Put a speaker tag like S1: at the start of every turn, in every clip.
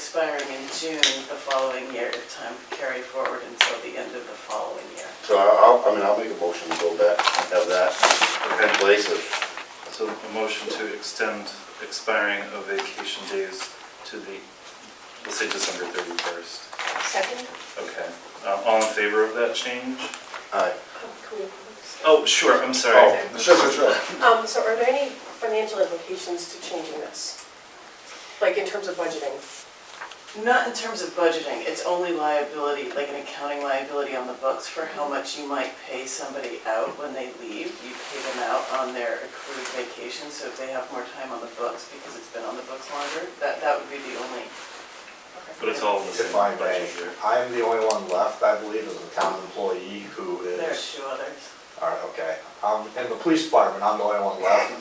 S1: expiring in June the following year, if time carried forward until the end of the following year.
S2: So I'll, I mean, I'll make a motion to go back and have that in place if,
S3: So a motion to extend expiring of vacation days to the, let's say December 31st.
S4: Second?
S3: Okay. Um, All in favor of that change?
S2: aye.
S4: um,
S3: Oh, sure, I'm sorry.
S2: Oh, sure, sure, sure.
S4: Um, so are there any financial implications to changing this? Like in terms of budgeting?
S1: Not in terms of budgeting, it's only liability, like an accounting liability on the books for how much you might pay somebody out when they leave. You pay them out on their accrued vacation, so if they have more time on the books because it's been on the books longer, that, that would be the only.
S3: But it's all in the same
S5: If I may,
S3: budget here.
S5: I'm the only one left, I believe, as a town employee who
S1: There's
S5: is,
S1: two others.
S5: all right, okay. Um, in the police department, I'm the only one left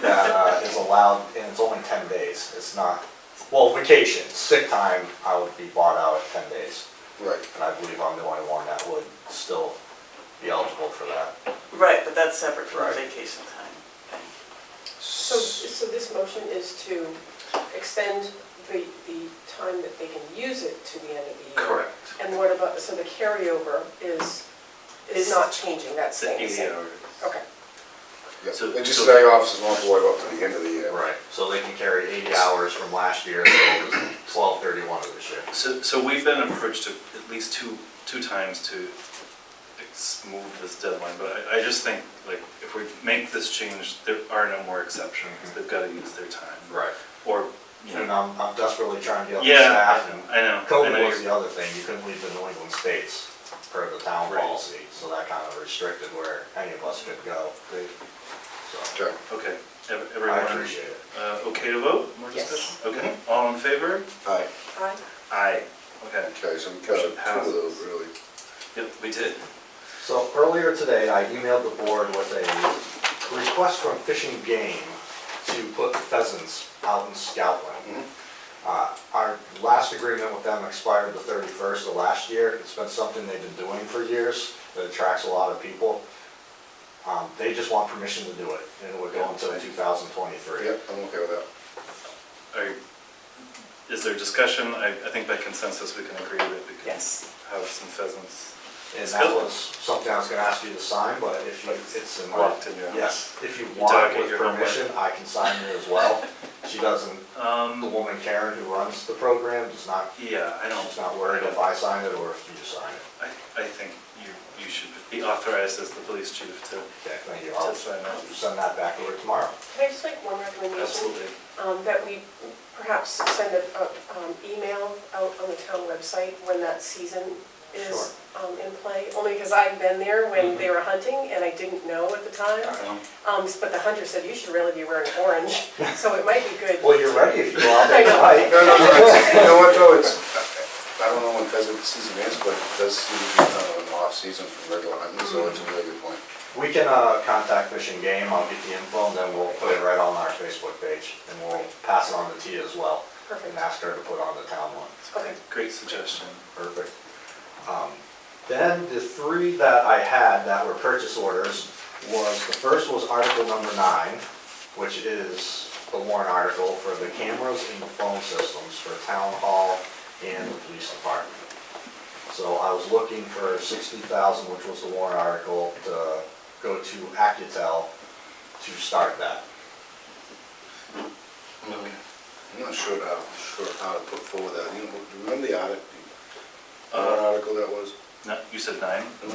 S5: that uh, is allowed, and it's only ten days, it's not, well, vacation, sick time, I would be bought out at ten days.
S2: Right.
S5: And I believe I'm the only one that would still be eligible for that.
S1: Right, but that's separate from the
S5: Right.
S1: vacation time thing.
S4: So, so this motion is to extend the, the time that they can use it to the end of the year?
S3: Correct.
S4: And what about, so the carryover is,
S1: Is-
S4: is not changing, that's
S3: It's at
S4: staying the
S3: 80
S4: same?
S3: hours.
S4: Okay.
S2: Yeah,
S3: So-
S2: And
S3: so-
S2: just say officers won't go up to the end of the year.
S5: Right, so they can carry eighty hours from last year to twelve thirty-one of this year.
S3: So, so we've been approached to- at least two, two times to ex- move this deadline, but I, I just think, like, if we make this change, there are no more exceptions.
S5: Mhm.
S3: They've got to use their time.
S5: Right.
S3: Or, you
S5: And
S3: know,
S5: I'm, I'm desperately trying to get the
S3: yeah,
S5: staff and
S3: I know. I know
S5: COVID
S3: you're-
S5: was the other thing, you couldn't leave the New England states per the town
S3: Right.
S5: policy, so that kind of restricted where any of us could go. So,
S2: Okay,
S3: Okay, Ev-
S5: I
S3: everyone,
S5: appreciate it. Mm-hmm.
S3: uh, okay to vote? More
S4: Yes.
S3: discussion? Okay, all in favor?
S2: aye.
S4: Aye.
S3: Aye. Okay,
S2: Okay, so we got two of those, really.
S3: yep, we did.
S5: So earlier today, I emailed the board with a request from Fish and Game to put pheasants out in Scoutland.
S2: Mhm.
S5: Uh, Our last agreement with them expired the 31st of last year. It's been something they've been doing for years that attracts a lot of people. Um, They just want permission to do it, and we're going to 2023.
S2: Yep, I'm okay with that.
S3: Are, you- is there discussion? I, I think by consensus, we can agree that we can have
S1: Yes.
S3: some pheasants
S5: And that was something I was gonna ask you to sign, but if you, it's in my.
S3: locked in your house.
S5: Yes, if you
S3: You
S5: want
S3: dug it,
S5: with
S3: you're not
S5: permission, I can sign it as well. She doesn't, the
S3: Um,
S5: woman Karen who runs the program is not,
S3: yeah, I don't.
S5: she's not worried if I sign it or if you sign it.
S3: I, I think you, you should be authorized as the police chief to,
S5: Okay, thank you.
S3: to
S5: I'll
S3: sign that.
S5: send that back over tomorrow.
S4: Can I just make one recommendation?
S3: Absolutely.
S4: um, that we perhaps send an email out on the town website when that season is um, in play, only because I've been there
S5: Mm-hmm.
S4: when they were hunting and I didn't know at the time.
S3: Um,
S4: Um, But the hunter said, you should really be wearing orange, so it might be good.
S5: Well, you're ready if you go out
S4: I
S5: there
S2: No, no,
S4: know.
S5: tonight.
S2: no, it's- you know what, though, it's, I don't know when pheasant season is, but it does seem to be kind of an off-season for regular hunting, so it's a really good point.
S5: We can, uh, contact Fish and Game, I'll get the info and then we'll put it right on our Facebook page and we'll pass it on to Tia as well.
S4: Perfect.
S5: And ask her to put on the town one.
S4: Okay,
S3: Great suggestion.
S5: Perfect. Um, Then the three that I had that were purchase orders was, the first was article number nine, which is the warrant article for the cameras and the phone systems for town hall and the police department. So I was looking for sixty thousand, which was the warrant article, to go to Accutel to start that.
S2: Mm-hmm. I'm not sure how, sure how to put forward that, you know, do you remember the article, what
S3: Uh,
S2: article that was?
S3: no, you said nine?
S5: I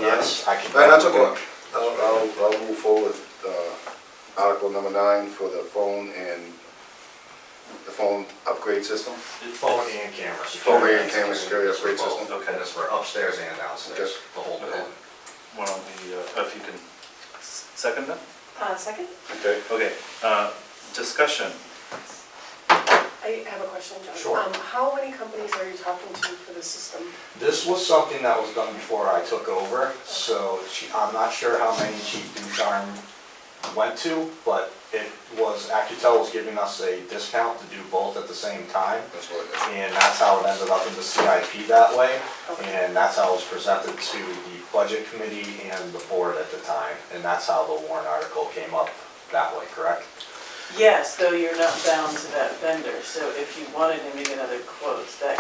S5: can.
S2: No, that's okay. I'll, I'll, I'll move forward with, uh, article number nine for the phone and, the phone upgrade system.
S5: Phone and camera.
S2: Phone and camera security upgrade
S5: For both.
S2: system.
S5: And it's for upstairs and downstairs,
S2: Okay.
S5: the whole building.
S3: Why don't we, uh, if you can s- second that?
S4: Uh, second,
S2: Okay.
S3: Okay, uh, discussion.
S4: I have a question, John.
S5: Sure.
S4: Um, How many companies are you talking to for the system?
S5: This was something that was done before I took over, so she- I'm not sure how many Chief Ducharme went to, but it was, Accutel was giving us a discount to do both at the same time,
S2: That's what it is.
S5: and that's how it ended up in the CIP that way,
S4: Okay.
S5: and that's how it was presented to the Budget Committee and the Board at the time, and that's how the warrant article came up that way, correct?
S1: Yes, though you're not bound to that vendor, so if you wanted to make another quote, that